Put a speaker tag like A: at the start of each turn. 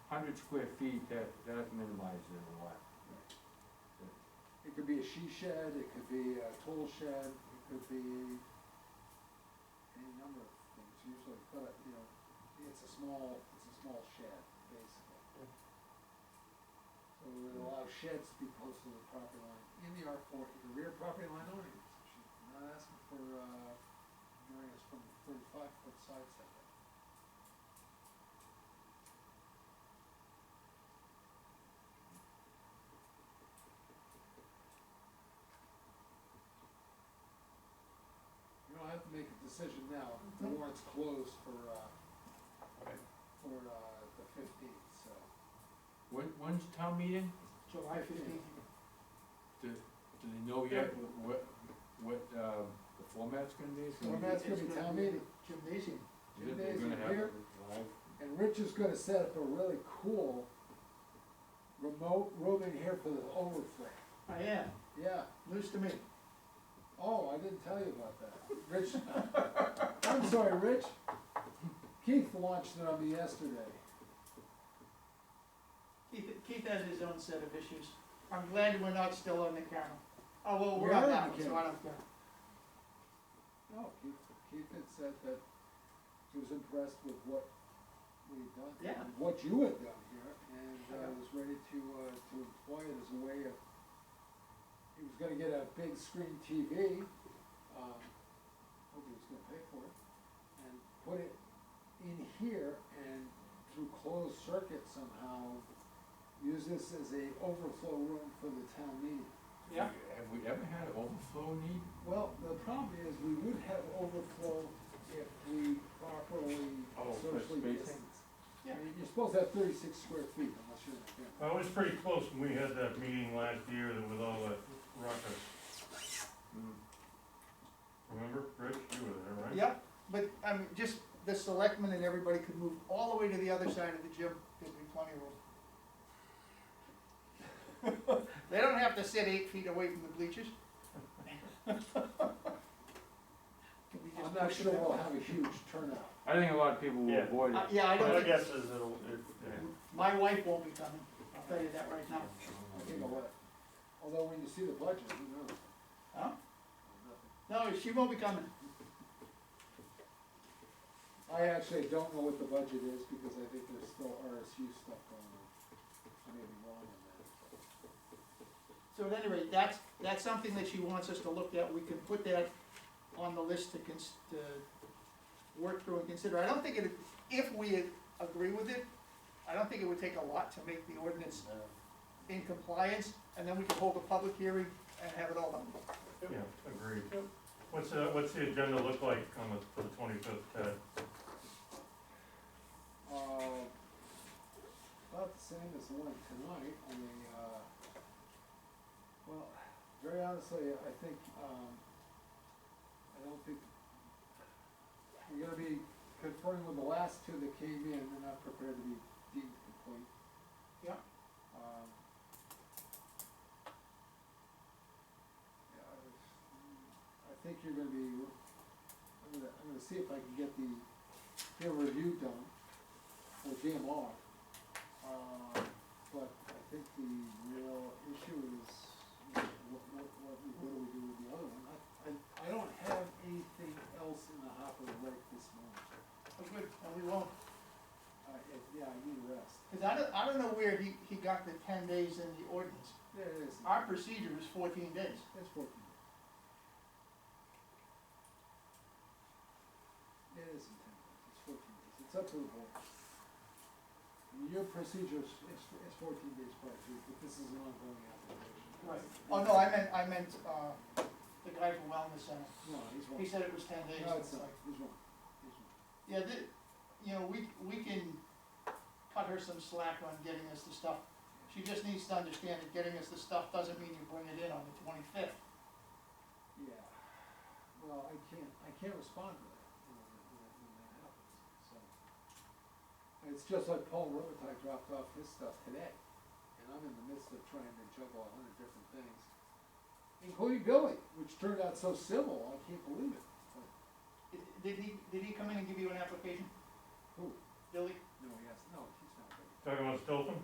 A: hundred square feet, that, that minimizes it a lot.
B: It could be a she shed, it could be a tool shed, it could be any number of things usually, but, you know, it's a small, it's a small shed, basically. So we would allow sheds to be close to the property line, in the R four, the rear property line only, She's not asking for, uh, areas from thirty-five foot side setback. You don't have to make a decision now, the warrant's closed for, uh, for, uh, the fifteenth, so.
A: When, when's town meeting?
C: July fifteenth,
A: Do, do they know yet wh- what, what, um, the format's gonna be? It's gonna be-
B: Format's gonna be town meeting,
C: gymnasium.
A: is it- they're gonna have
B: Here.
A: live?
B: and Rich is gonna set up a really cool remote rooming here for the overflow.
C: I am,
B: Yeah,
C: news to me.
B: oh, I didn't tell you about that, Rich, I'm sorry, Rich, Keith launched it on me yesterday.
C: Keith, Keith has his own set of issues. I'm glad we're not still on the camera. Oh, well, we're on
B: We're
C: that
B: on
C: one,
B: the
C: so I
B: camera.
C: don't care.
B: No, Keith, Keith had said that he was impressed with what we had done.
C: Yeah.
B: What you had done here, and, uh,
C: Yeah.
B: was ready to, uh, to employ it as a way of, he was gonna get a big screen TV, um, hope he was gonna pay for it, and put it in here and through closed circuit somehow, use this as a overflow room for the town meeting.
C: Yeah.
A: Have we ever had an overflow need?
B: Well, the problem is, we would have overflow if we properly
A: Oh, for
B: socially
A: spacing?
B: distance.
C: Yeah.
B: You're supposed to have thirty-six square feet unless you're in a family.
D: I was pretty close when we had that meeting last year that with all that ruckus,
A: Hmm.
D: remember, Rich, you were there, right?
C: Yep, but, I mean, just the selectmen and everybody could move all the way to the other side of the gym, there'd be plenty of room. They don't have to sit eight feet away from the bleachers. Could we just
B: I'm not
C: push it
B: sure
C: that
B: we'll
C: way?
B: have a huge turnout.
A: I think a lot of people will
D: Yeah.
A: avoid
C: Uh,
A: it.
C: Yeah, I don't
D: My
C: think,
D: guess is it'll, it, yeah.
C: my wife won't be coming, I'll tell you that right now.
B: I
A: Mm-hmm.
B: think I'll let, although when you see the budget, who knows?
C: Huh?
B: Nothing.
C: No, she won't be coming.
B: I actually don't know what the budget is because I think there's still RSU stuff going on. I may be wrong on that.
C: So at any rate, that's, that's something that she wants us to look at, we can put that on the list to cons, to work through and consider. I don't think it, if we agree with it, I don't think it would take a lot to make the ordinance in compliance, and then we can hold a public hearing and have it all done.
D: yeah, agreed. What's, uh, what's the agenda look like on the, for the twenty-fifth, Ted?
B: Uh, About the same as the one tonight, I mean, uh, well, very honestly, I think, um, I don't think, we're gonna be conferring with the last two that came in, they're not prepared to be deemed complete.
C: Yeah.
B: Um, yeah, I was- I think you're gonna be, I'm gonna, I'm gonna see if I can get the peer review done for DMR. Uh, but I think the real issue is, you know, what, what, what, we- what do we do with the other one? I, I, I don't have anything else in the hopper right this moment.
C: Oh, good, and we won't,
B: I, it- yeah, I need a rest.
C: because I don't, I don't know where he, he got the ten days in the ordinance.
B: There it is.
C: Our procedure is fourteen days.
B: It's working. It is intended, it's fourteen days, it's up to the board. Your procedure is, is is fourteen days prior to, but this is an ongoing application.
C: Oh, no, I meant, I meant, uh, the guy from Wellness Center,
B: No, he's wrong.
C: he said it was ten days.
B: No, it's
C: like-
B: not, he's wrong, he's wrong.
C: Yeah, th you know, we, we can cut her some slack on getting us the stuff. She just needs to understand that getting us the stuff doesn't mean you bring it in on the twenty-fifth.
B: Yeah, well, I can't, I can't respond to that, you know, when, when- when that happens, so. And It's just like Paul Robitaille dropped off his stuff today, and I'm in the midst of trying to juggle a hundred different things, including Billy, which turned out so civil, I can't believe it, but,
C: Did he, did he come in and give you an application,
B: who,
C: Billy?
B: no, yes, no, he's not ready.
D: Talking about Stoughton?